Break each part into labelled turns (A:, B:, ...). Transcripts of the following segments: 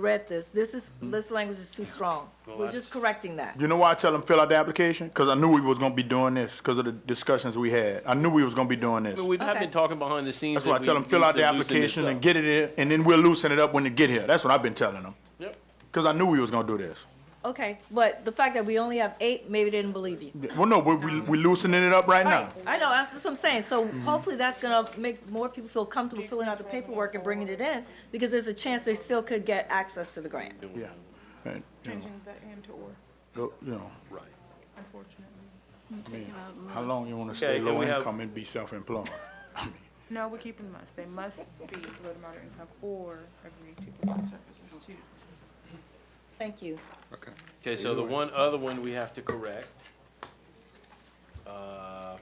A: read this, this is, this language is too strong. We're just correcting that.
B: You know why I tell them fill out the application? Because I knew we was gonna be doing this because of the discussions we had. I knew we was gonna be doing this.
C: But we have
A: Okay.
C: been talking behind the scenes.
B: That's why I
C: that
B: tell
C: we
B: them fill
C: need
B: out
C: to
B: the
C: loosen this
B: application and
C: up.
B: get it in, and then we'll loosen it up when it get here. That's what I've been telling them.
C: Yep.
B: Because I knew we was gonna do this.
A: Okay, but the fact that we only have eight, maybe they didn't believe you.
B: Well, no, we we, we loosening it up right now.
A: Right, I know, that's what I'm saying, so hopefully that's gonna make more people feel comfortable filling out the paperwork and bringing it in, because there's a chance they still could get access to the grant.
B: Yeah. And, you know,
D: Changing the and to or,
B: lo- you know,
C: Right.
D: unfortunately.
B: I mean, how long you wanna
C: Okay,
B: stay
C: can
B: low
C: we have-
B: income and be self-employed?
D: No, we're keeping must. They must be low to moderate income or agree to provide services to.
A: Thank you.
E: Okay.
C: Okay, so the one other one we have to correct. Uh,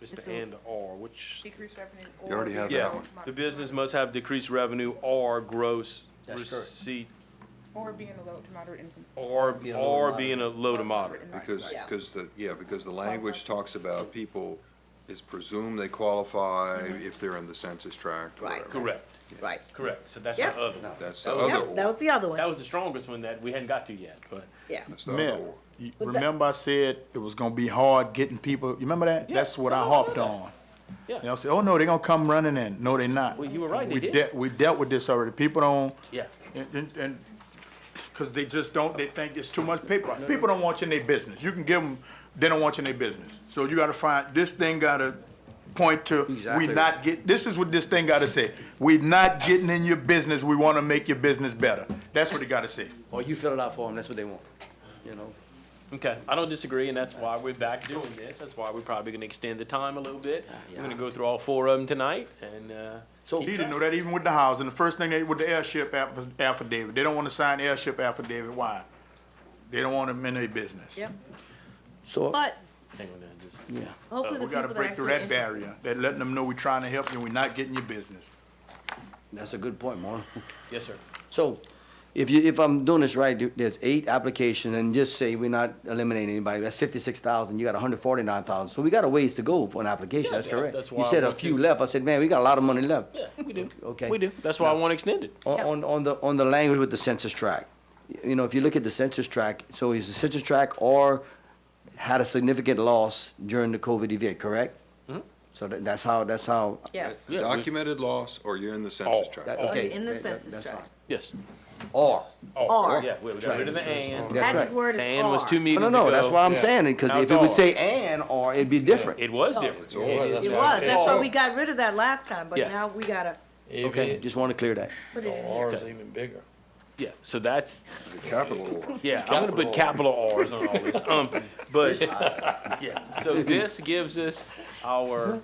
C: Mr. and or, which,
D: Decrease revenue or.
E: You already have that
C: yeah,
E: one.
C: the business must have decreased revenue or gross
F: That's correct.
C: receipt
D: Or being a low to moderate income.
C: or,
F: Be a low to
C: or
F: moderate.
C: being a low to moderate.
E: Because,
A: Yeah.
E: because the, yeah, because the language talks about people, it's presumed they qualify if they're in the census tract
A: Mm-hmm.
E: or
A: Right.
E: whatever.
C: Correct,
A: Right.
C: correct. So that's
A: Yep.
C: the other one.
E: That's the
A: Yeah,
E: other
A: that
E: or.
A: was the other
C: That
A: one,
C: was the strongest one that we hadn't got to yet, but.
A: yeah.
E: That's the other
B: Man,
E: or.
B: you-
A: that-
B: remember I said it was gonna be hard getting people, you remember that?
C: Yeah.
B: That's what I
C: No, no,
B: harped
C: no.
B: on.
C: Yeah.
B: They'll say, oh no, they gonna come running in. No, they not.
C: Well, you were right, they
B: We
C: did.
B: dealt- We dealt with this already. People don't,
C: Yeah.
B: and, and, and, cause they just don't, they think it's too much paper. People don't want you in their business. You can give them, they don't want you in their business. So you gotta find, this thing gotta point to, we
F: Exactly.
B: not get, this is what this thing gotta say. We not getting in your business. We wanna make your business better. That's what it gotta say.
F: Or you fill it out for them, that's what they want, you know?
C: Okay, I don't disagree, and that's why we're back doing this. That's why we're probably gonna extend the time a little bit. We're gonna go through all four of them tonight, and, uh,
F: So,
B: He didn't know that even with the housing. The first thing they, with the airship aff- affidavit, they don't want to sign airship affidavit. Why? They don't want them in their business.
A: Yep,
F: so,
A: but
C: hang on now, just.
F: yeah,
A: hopefully the
B: Uh, We gotta
A: people that are
B: break through
A: actually
B: that
A: interested.
B: barrier, that letting them know we are trying to help you, and we not getting your business.
F: that's a good point, Marlon.
C: Yes, sir.
F: So, if you, if I'm doing this right, there- there's eight applications, and just say we're not eliminating anybody, that's fifty-six thousand, you got hundred forty-nine thousand, so we got a ways to go for an application, that's
C: yeah,
F: correct.
C: that's
F: You
C: why I
F: said a
C: want
F: few
C: to-
F: left, I said, man, we got a lot of money left.
C: Yeah, we do.
F: Okay.
C: We do. That's why I want extended.
F: On, on, on the, on the language with the census tract, you know, if you look at the census tract, so is the census tract or had a significant loss during the COVID event, correct?
C: Mm-hmm.
F: So that, that's how, that's how,
A: Yes,
C: Yeah, we-
E: Documented loss or you're in the census
C: Oh,
E: tract.
F: that,
C: Or
F: okay.
A: in the
F: that- that-
A: census
F: that's
A: tract.
F: fine.
C: Yes. Oh,
F: Or,
A: Or.
C: Yeah, we we got rid of the and.
F: That's
A: magic
F: right.
A: word is R.
C: The and was two meetings
F: no,
C: ago.
F: no, no, that's why I'm
C: Yeah.
F: saying it, because
C: Now
F: if
C: it's
F: it would
C: or.
F: say and, or, it'd be different.
C: It was different.
E: or.
C: Oh, Yeah, is
A: It
C: different.
A: was, that's why
F: Oh.
A: we got rid of that last time, but
C: Yes.
A: now we gotta
F: Okay, just want to clear that.
A: put it in here.
G: Ours even bigger.
C: Yeah, so that's,
E: The capital or.
C: yeah, I'm gonna put capital Rs on all this, um, but, yeah. So this gives us our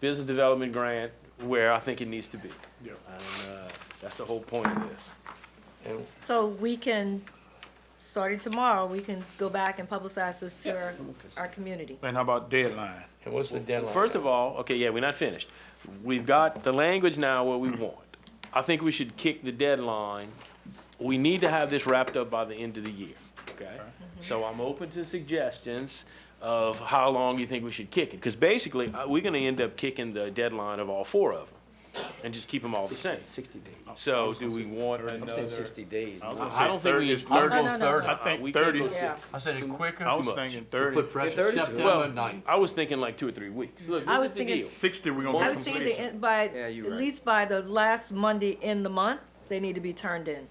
C: business development grant where I think it needs to be.
B: Yeah.
C: And, uh, that's the whole point of this.
G: And
A: So we can, starting tomorrow, we can go back and publicize this to our, our community.
B: And how about deadline?
G: and what's the deadline?
C: First of all, okay, yeah, we're not finished. We've got the language now where we want. I think we should kick the deadline. We need to have this wrapped up by the end of the year, okay? So I'm open to suggestions of how long you think we should kick it. Because basically, uh, we're gonna end up kicking the deadline of all four of them and just keep them all the same.
F: Sixty days.
C: So do we want
F: I'm saying
C: another?
F: sixty days.
C: I don't think we.
B: It's
G: Oh,
B: 30.
A: No, no, no, no.
B: I
C: Uh, we can't
B: think thirty.
C: go six.
G: I said it quicker.
B: I was thinking thirty.
G: Put pressure
F: Thirty-
G: September
C: Well,
G: ninth.
C: I was thinking like two or three weeks. Look,
A: I
C: this
A: was
C: is the
A: thinking
C: deal.
B: Sixty, we
C: I
B: gonna
A: I
B: be
A: was thinking the,
B: completion.
A: end- by,
F: Yeah, you're
A: at
F: right.
A: least by the last Monday in the month, they need to be turned in.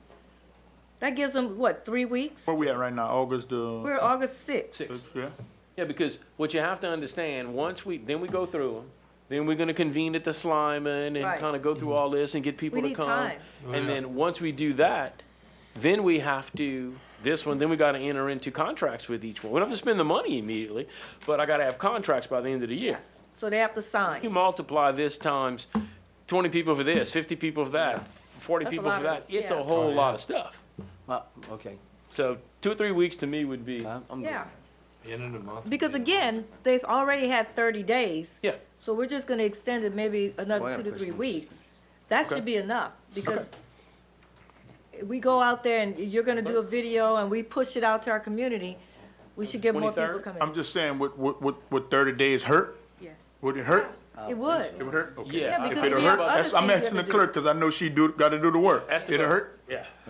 A: That gives them, what, three weeks?
B: Where we at right now? August, uh,
A: We're August sixth.
B: sixth, yeah?
C: Yeah, because what you have to understand, once we, then we go through them, then we're gonna convene at the Slyman
A: Right.
C: and kinda go through all this and get people to
A: need
C: come.
A: time.
C: And then, once we do that, then we have to, this one, then we gotta enter into contracts with each one. We don't have to spend the money immediately, but I gotta have contracts by the end of the year.
A: Yes, so they have to
C: You
A: sign.
C: multiply this times twenty people for this, fifty people for that, forty
A: That's a
C: people
A: lot
C: for
A: of-
C: that, it's
A: yeah.
C: a whole lot of stuff.
F: Uh, Okay,
C: So, two or three weeks to me would be,
F: I'm, I'm good.
A: Yeah,
G: End of the month.
A: because again, they've already had thirty days.
C: yeah,
A: So we're just gonna extend it maybe
F: Well,
A: another
F: I
A: two
F: have
A: to
F: a
A: three
F: question.
A: weeks. That
C: Okay.
A: should be enough, because we go out there and you're gonna do a video and we push it out to our community, we should get more people
C: 23rd?
A: coming.
B: I'm just saying, would, would, would, would thirty days hurt?
D: Yes.
B: Would it hurt?
A: It would.
B: It would hurt? Okay.
C: Yeah,
A: Yeah,
B: If
A: because
B: it'll
A: we have
B: hurt,
A: other
B: that's,
A: things
B: I'm
A: we
B: asking the
A: have to do.
B: clerk, cause I know she do, gotta do the work.
C: That's the
B: It'll
C: best-
B: hurt?
C: Yeah.